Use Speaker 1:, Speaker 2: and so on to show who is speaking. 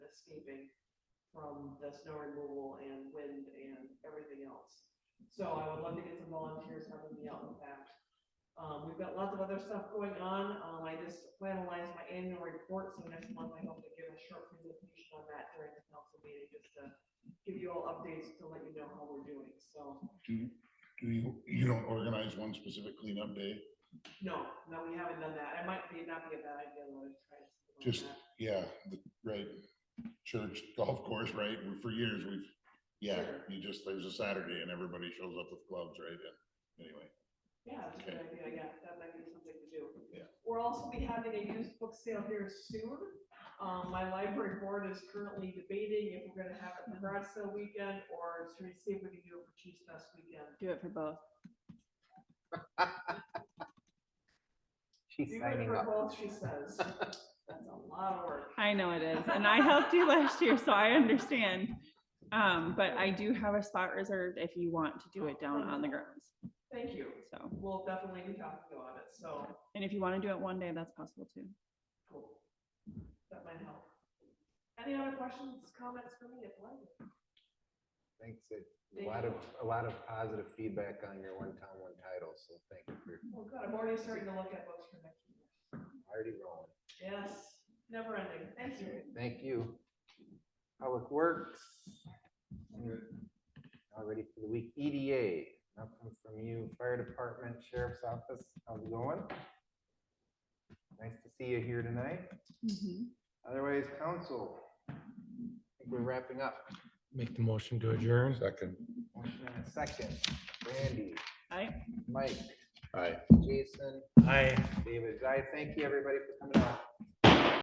Speaker 1: landscaping from the snow removal and wind and everything else. So I would love to get some volunteers helping me out with that. Um, we've got lots of other stuff going on. Um, I just finalized my annual report, so next month I hope to give a short presentation on that during the council meeting, just to give you all updates to let you know how we're doing, so.
Speaker 2: Do you, you don't organize one specific cleanup day?
Speaker 1: No, no, we haven't done that. It might be, not be a bad idea, let us try something like
Speaker 2: Just,
Speaker 1: that.
Speaker 2: yeah, the- right, church, golf course, right, we- for years, we've, yeah,
Speaker 1: Sure.
Speaker 2: you just, there's a Saturday and everybody shows up with gloves, right, and anyway.
Speaker 1: Yeah, that's a good idea, yeah, that might be something to do.
Speaker 2: Yeah.
Speaker 1: We're also be having a used book sale here soon. Um, my library board is currently debating if we're gonna have it for garage sale weekend or should we see if we can do it for Cheese Fest weekend.
Speaker 3: Do it for both.
Speaker 4: She's
Speaker 1: Do it
Speaker 4: signing
Speaker 1: for
Speaker 4: up.
Speaker 1: both, she says. That's a lot of work.
Speaker 3: I know it is, and I helped you last year, so I understand. Um, but I do have a spot reserved if you want to do it down on the grounds,
Speaker 1: Thank you.
Speaker 3: so.
Speaker 1: We'll definitely be talking about it, so
Speaker 3: And if you want to do it one day, that's possible too.
Speaker 1: cool. That might help. Any other questions, comments for me at the library?
Speaker 4: Thanks. A
Speaker 1: Thank
Speaker 4: lot
Speaker 1: you.
Speaker 4: of, a lot of positive feedback on your one town, one title, so thank you for
Speaker 1: Well, Oh, good, I'm already starting to look at books for next year.
Speaker 4: already rolling.
Speaker 1: Yes, never ending, thank you.
Speaker 4: Thank you. Public Works. All ready for the week. E EDA, nothing from you. Fire Department, Sheriff's Office, how's it going? Nice to see you here tonight. Otherwise, council. I think we're wrapping up.
Speaker 5: Make the motion to adjourn.
Speaker 2: Second.
Speaker 4: Motion and a second. Randy,
Speaker 3: Aye.
Speaker 4: Mike,
Speaker 2: Aye.
Speaker 4: Jason,
Speaker 5: Aye.
Speaker 4: David. I thank you, everybody, for coming out.